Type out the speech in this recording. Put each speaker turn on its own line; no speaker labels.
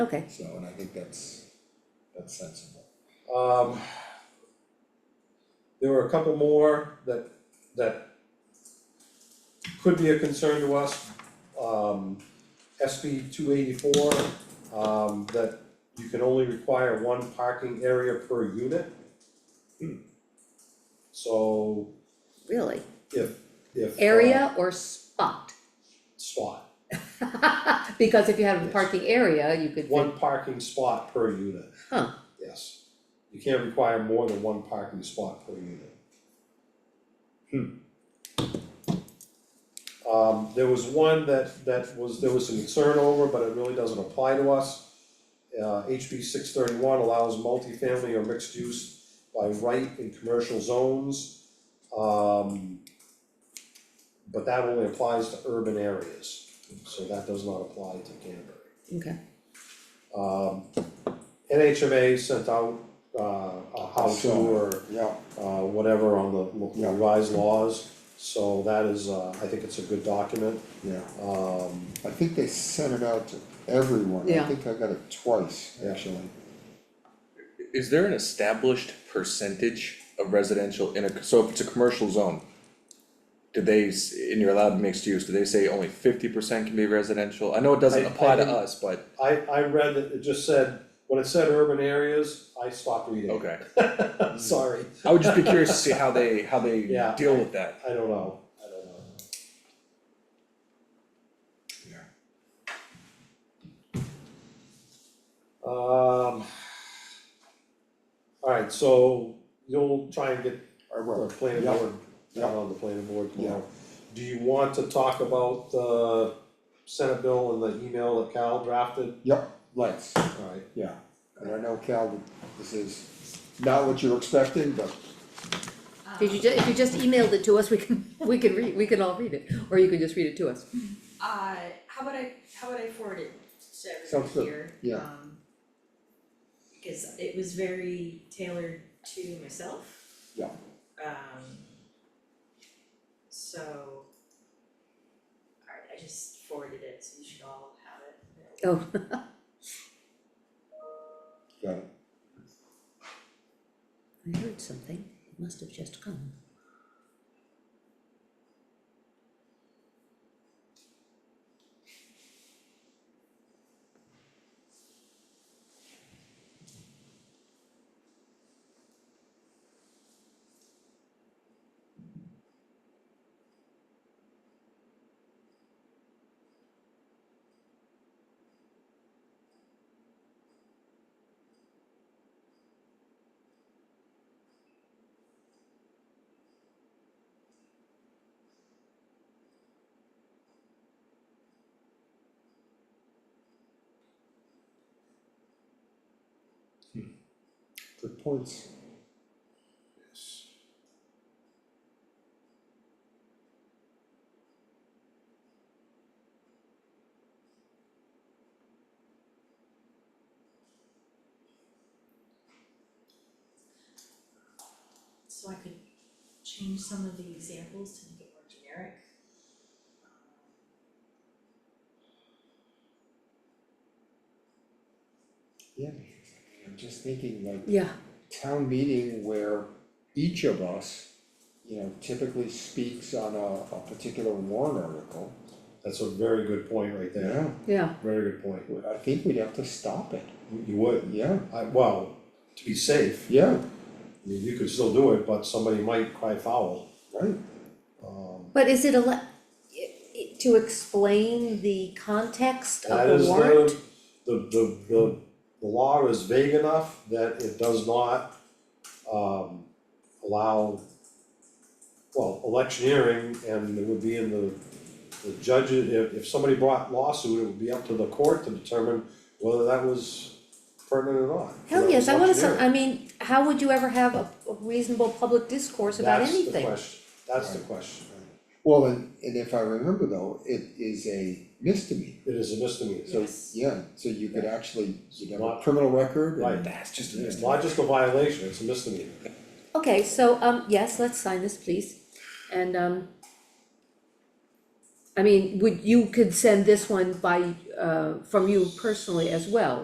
Okay,
So, and I think that's, that's sensible. Um, There were a couple more that, that could be a concern to us. Um, SB two eighty-four, um, that you can only require one parking area per unit. So
really?
if, if. uh,
Area or spot?
Spot,
Because if you have a
Yes.
parking area, you could, fit-
one parking spot per unit.
huh,
Yes. You can't require more than one parking spot per unit. Hmm. Um, there was one that, that was, there was some concern over, but it really doesn't apply to us. Uh, HB six thirty-one allows multifamily or mixed use by right in commercial zones. Um, but that only applies to urban areas, so that does not apply to Canterbury.
okay,
Um, NHMA sent out, uh, a how to or,
Yeah,
uh, whatever on the lo-
Yeah.
revised laws. So that is, uh, I think it's a good document,
yeah,
um,
I think they sent it out to everyone, I
Yeah.
think I got it twice,
Yeah.
actually.
Is there an established percentage of residential in a, so if it's a commercial zone? Do they, s- and you're allowed mixed use, do they say only fifty percent can be residential? I know it doesn't
I- I
apply to
didn't-
us, but,
I, I read that, it just said, when it said urban areas, I stopped reading.
okay.
Sorry,
I would just be curious to see how they, how they
Yeah.
deal with that.
I don't know, I don't know. Um. Alright, so you'll try and get
I
the
will,
planning
Yeah.
board,
Yeah.
not on the planning board tomorrow. Do you want to talk about the Senate bill and the email that Cal drafted?
yep, lights,
Alright,
yeah, and I know Cal, that this is not what you're expecting, but
Um,
did you ju- if you just emailed it to us, we can, we can read, we can all read it, or you can just read it to us.
Uh, how about I, how about I forward it to
Sounds
everyone
good,
here?
yeah.
um, Because it was very tailored to myself.
Yeah.
Um. So. Alright, I just forwarded it, so you should all have it.
Oh,
got it.
I heard something, it must have just come.
Good points.
So I could change some of the examples to make it more generic.
Yeah, I'm just thinking like
Yeah,
town meeting where each of us, you know, typically speaks on a, a particular warrant article.
that's a very good point right there,
yeah,
very good point,
Yeah, I think we'd have to stop it,
You- you would,
yeah,
I, well, to be safe,
yeah,
you, you could still do it, but somebody might cry foul.
right,
Um,
but is it a, to explain the context
that
of
is
the warrant?
the, the, the, the, the law is vague enough that it does not, um, allow, well, electioneering, and it would be in the, the judges, if, if somebody brought lawsuit, it would be up to the court to determine whether that was pertinent or not.
Hell yes, I wanna, some-
Electioneering.
I mean, how would you ever have a a reasonable public discourse about
That's the
anything?
question, that's the question,
well, and, and if I remember though, it is a misdemeanor.
it is a misdemeanor,
So,
Yes.
yeah, so you could actually, you'd have a
Not-
criminal record and-
Right.
That's just a
it's
misdemeanor.
not just a violation, it's a misdemeanor.
Okay, so, um, yes, let's sign this, please, and, um. I mean, would, you could send this one by, uh, from you personally as well,